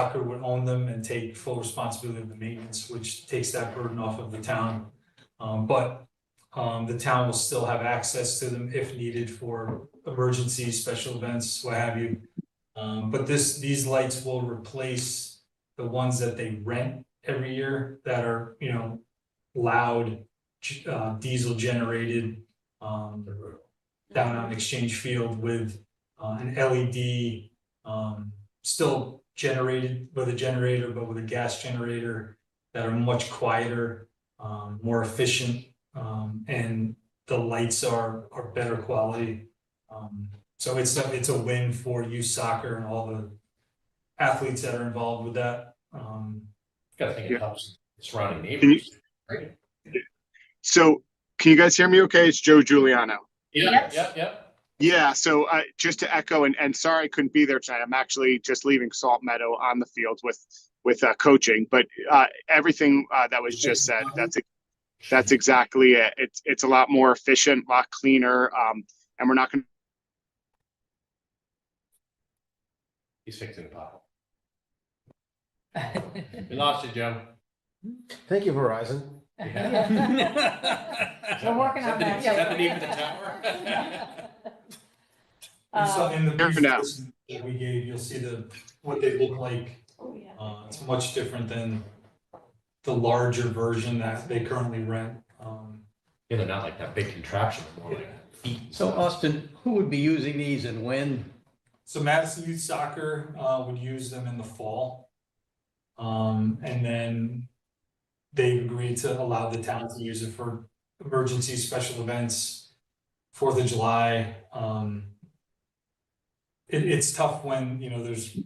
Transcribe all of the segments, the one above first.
Tucker would own them and take full responsibility of the maintenance, which takes that burden off of the town. Um, but, um, the town will still have access to them if needed for emergencies, special events, what have you. Um, but this, these lights will replace the ones that they rent every year that are, you know, loud, g- uh, diesel generated, um, down on Exchange Field with, uh, an LED, um, still generated with a generator, but with a gas generator that are much quieter, um, more efficient, um, and the lights are, are better quality. Um, so it's, a- it's a win for youth soccer and all the athletes that are involved with that. Um, Gotta think Yeah. it helps surrounding Can you- neighbors. Right. So, can you guys hear me okay? It's Joe Giuliano. Yeah, Yep. yeah, yeah. Yeah, so uh, just to echo, and, and sorry I couldn't be there tonight. I'm actually just leaving Salt Meadow on the field with with uh, coaching, but uh, everything uh, that was just said, that's that's exactly it. It's it's a lot more efficient, a lot cleaner, um, and we're not going. to He's fixing the pothole. We lost you, Joe. Thank you, Verizon. We're We're working on that. Is that the name of the tower? and so Um, in the Fair enough. presentation that we gave, you'll see the, what they look like oh, yeah. Uh, it's much different than the larger version that they currently rent. Um, Yeah, they're not like that big contraption, they're more like feet. and So stuff. Austin, who would be using these and when? so Madison Youth Soccer, uh, would use them in the fall. Um, and then they agreed to allow the town to use it for emergency special events, Fourth of July, um. It, it's tough when, you know, there's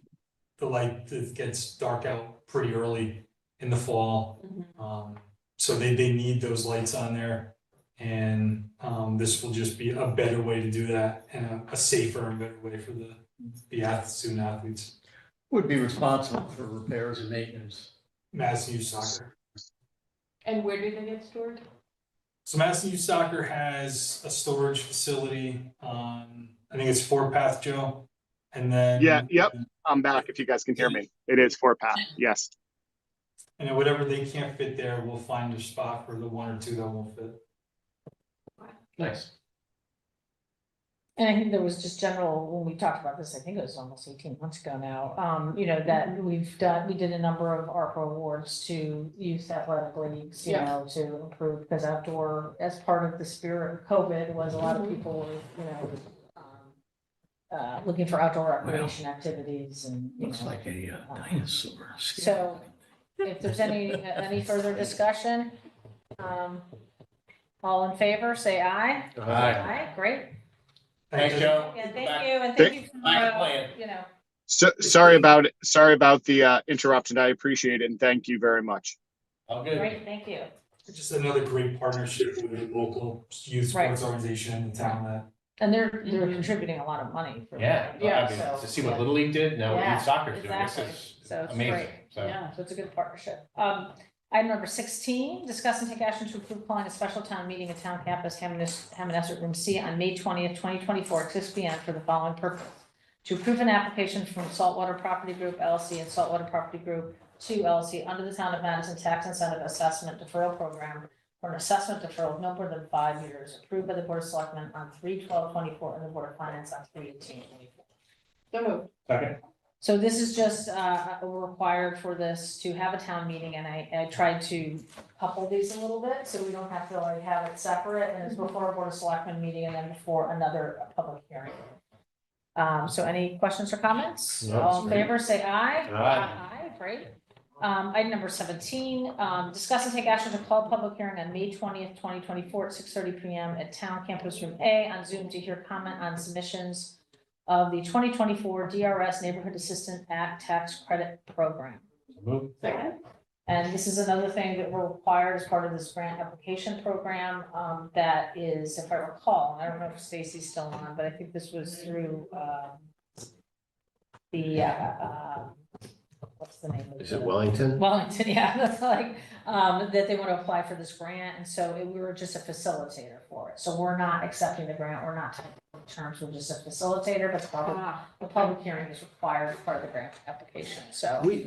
the light, it gets dark out pretty early in the fall. Mhm. Um, so they, they need those lights on there. And, um, this will just be a better way to do that and a, a safer and better way for the, the ath- student athletes, Who Would be responsible for repairs and maintenance? Madison Youth Soccer. And where do they get stored? So Madison Youth Soccer has a storage facility on, I think it's Fort Path, Joe. And then. Yeah, yep. I'm back if you guys can hear me. It is four path. Yes. And then whatever they can't fit there, we'll find a spot for the one or two that won't fit. Nice. And I think there was just general, when we talked about this, I think it was almost eighteen months ago now, um, you know, that we've done, we did a number of ARPA awards to youth athletic leagues, you know, to improve, because outdoor, as part of the spirit of COVID, was a lot of people were, you know, um, uh, looking for outdoor recreation activities and, you Looks know, like a uh, dinosaur. So- if there's any, uh, any further discussion, um, all in favor, say aye. All right. Aye, great. Thanks, Joe. Yeah, Back- thank you, and Thank- thank you for, back to uh, plan. you know, So sorry about sorry about the uh, interruption. I appreciate it, and thank you very much. All good. great, thank you. Just another great partnership with a local youth sports organization in the town that And they're, they're contributing a lot of money. for- Mm-hmm. Yeah, well, I mean, so- to see what Little League did, now what Yeah, youth soccer's doing, this Exactly, is so it's great, amazing. So, yeah, so it's a good partnership. Um, item number sixteen, discuss and take action to approve calling a special town meeting at town campus, Hammoness, Hammoness Room C on May twentieth, twenty twenty-four, at six P M for the following purpose. To approve an application from Saltwater Property Group LLC and Saltwater Property Group Two LLC under the Town of Madison Tax Incentive Assessment Deferral Program for an assessment deferral of no more than five years, approved by the Board of Selectmen on three twelve twenty-four and the Board of Finance on three eighteen twenty-four. So moved. second, So this is just, uh, required for this to have a town meeting and I, I tried to couple these a little bit, so we don't have to like have it separate and it's before a board of selectmen meeting and then before another public hearing. Um, so any questions or comments? No, All in it's great. favor, say aye. Aye. Aye, great. Um, item number seventeen, um, discuss and take action to call public hearing on May twentieth, twenty twenty-four at six thirty P M at Town Campus Room A on Zoom to hear comment on submissions of the twenty twenty-four DRS Neighborhood Assistant Act Tax Credit Program. move, And this is another thing that we're required as part of this grant application program, um, that is, if I recall, I don't know if Stacy's still on, but I think this was through, um, the, uh, uh, what's the name of the? Is it Wellington? Wellington, yeah, that's like, um, that they want to apply for this grant, and so it- we were just a facilitator for it. So we're not accepting the grant, we're not typing up terms, we're just a facilitator, but the public, the public hearing is required as part of the grant application, so. We,